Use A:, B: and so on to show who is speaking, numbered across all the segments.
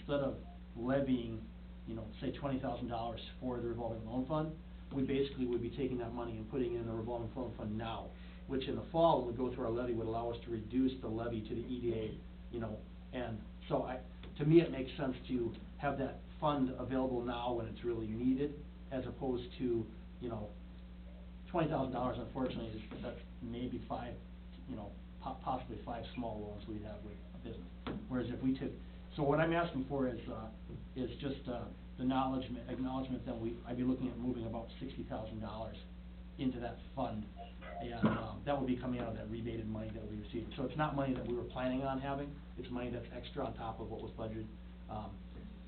A: instead of levying, you know, say twenty thousand dollars for the revolving loan fund, we basically would be taking that money and putting it in the revolving loan fund now, which in the fall, when we go through our levy, would allow us to reduce the levy to the EDA, you know, and so I, to me, it makes sense to have that fund available now when it's really needed, as opposed to, you know, twenty thousand dollars unfortunately is, that's maybe five, you know, po- possibly five small loans we'd have with a business. Whereas if we took, so what I'm asking for is, uh, is just, uh, the acknowledgement, acknowledgement that we, I'd be looking at moving about sixty thousand dollars into that fund. And, um, that would be coming out of that rebated money that we received. So it's not money that we were planning on having, it's money that's extra on top of what was budgeted. Um,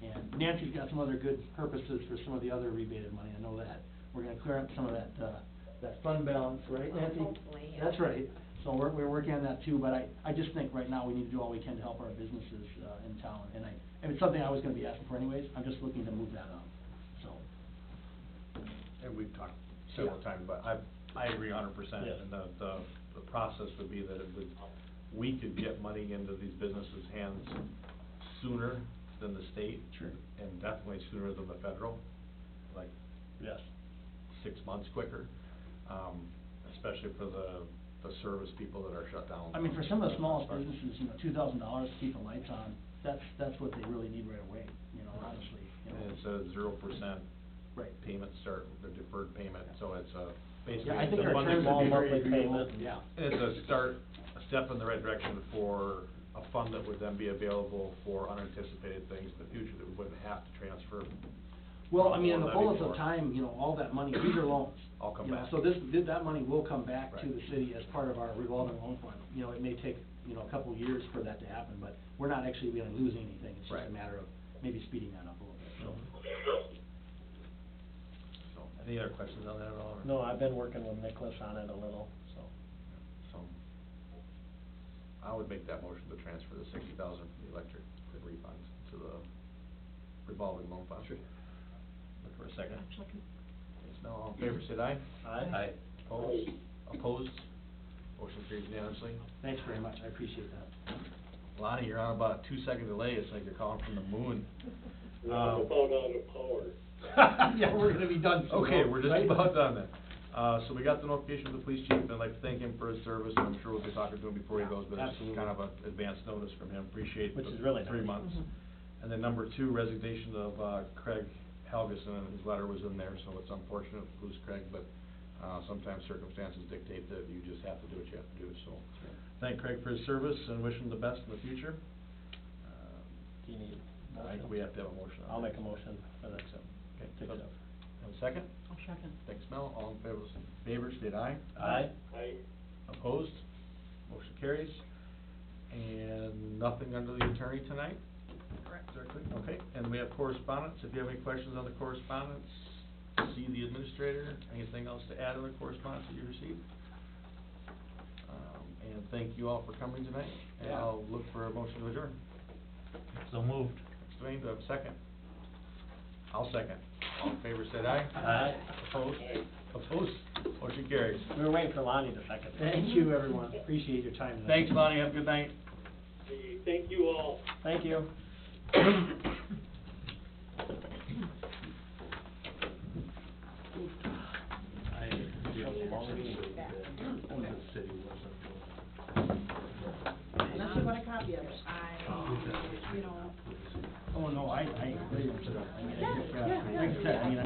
A: and Nancy's got some other good purposes for some of the other rebated money, I know that. We're gonna clear up some of that, uh, that fund balance, right,
B: Well,
A: Nancy?
B: hopefully, yeah.
A: That's right. So we're, we're working on that too, but I, I just think right now we need to do all we can to help our businesses, uh, in town. And I, and it's something I was gonna be asking for anyways, I'm just looking to move that up, so.
C: And we've talked several
A: Yeah.
C: times, but I, I agree a hundred percent.
A: Yes.
C: And the, the, the process would be that it would, we could get money into these businesses' hands sooner than the state.
A: Sure.
C: And definitely sooner than the federal, like
A: Yes.
C: six months quicker, um, especially for the, the service people that are shut down.
A: I mean, for some of the smallest businesses, you know, two thousand dollars to keep the lights on, that's, that's what they really need right away, you know, honestly, you know.
C: And it's a zero percent
A: Right.
C: payment start, the deferred payment, so it's a, basically.
A: Yeah, I
C: it's
A: think
C: a
A: our
C: one
A: terms
C: that
A: would
C: would
A: be
C: be
A: very
C: very
A: agreeable, yeah.
C: It's a start, a step in the right direction for a fund that would then be available for unanticipated things in the future that we wouldn't have to transfer.
A: Well, I mean, in
C: from
A: the
C: one
A: fullness of
C: levy to our-
A: time, you know, all that money, these are loans.
C: All come
A: you know,
C: back.
A: So this, th- that money will come back to
C: Right.
A: the city as part of our revolving loan fund. You know, it may take, you know, a couple of years for that to happen, but we're not actually gonna lose anything. It's just a
C: Right.
A: matter of maybe speeding that up a little bit,
C: So, Any other questions on that at all? or-
D: No, I've been working with Nicholas on it a little, so.
C: So, I would make that motion to transfer the sixty thousand from the electric refunds to the revolving loan fund. Sure. Look for a second. Yes, now, all in favor, say aye.
D: Aye.
C: Opposed? Opposed? Motion carries unanimously.
A: so. Thanks very much, I appreciate that.
C: Lonnie, you're on about a two-second delay, it's like you're calling from the moon.
E: We're about out of power.
A: Yeah, we're gonna be done soon,
C: Okay, we're just
A: right?
C: about done then. Uh, so we got the notification of the police chief, and I'd like to thank him for his service, and I'm sure we'll be talking to him before he
A: Yeah,
C: goes, but it's
A: absolutely.
C: kind of an advanced notice from him, appreciate
D: Which
C: the
D: is really
C: three
D: nice.
C: months.
A: Mm-hmm.
C: And then number two, resignation of, uh, Craig Helgeson, and his letter was in there, so it's unfortunate to lose Craig, but, uh, sometimes circumstances dictate that you just have to do what you have to do, so. Thank Craig for his service and wish him the best in the future. Um,
D: Do you need a
C: I think
D: motion?
C: we have to have a motion on that.
D: I'll make a motion for that, so.
C: So, Okay,
D: Take it
C: so-
D: up.
C: have a second?
B: I'll second.
C: Thanks, Mel. All in favor, favor, state aye.
D: Aye.
E: I,
C: Opposed? Motion carries. And nothing under the attorney tonight?
B: Correct.
C: Directly, okay. And we have correspondence. If you have any questions on the correspondence, see the administrator. Anything else to add on the correspondence that you received? Um, and thank you all for coming tonight. And
A: Yeah.
C: I'll look for a motion to adjourn.
D: So moved.
C: Thanks, Dwayne. Do I have a second? I'll second. All in favor, state aye.
D: Aye.
C: Opposed? Opposed? Motion carries.
D: We were waiting for Lonnie to second.
A: Thank you, everyone, appreciate your time. tonight.
C: Thanks, Lonnie. Have a good night.
E: hey, thank you all.
D: Thank you.
B: Unless you want a copy of it. I, you know.
A: Oh, no, I, I agree with you. I mean, I
B: Yeah,
A: think, uh,
B: yeah, yeah.
A: Like I said, I mean,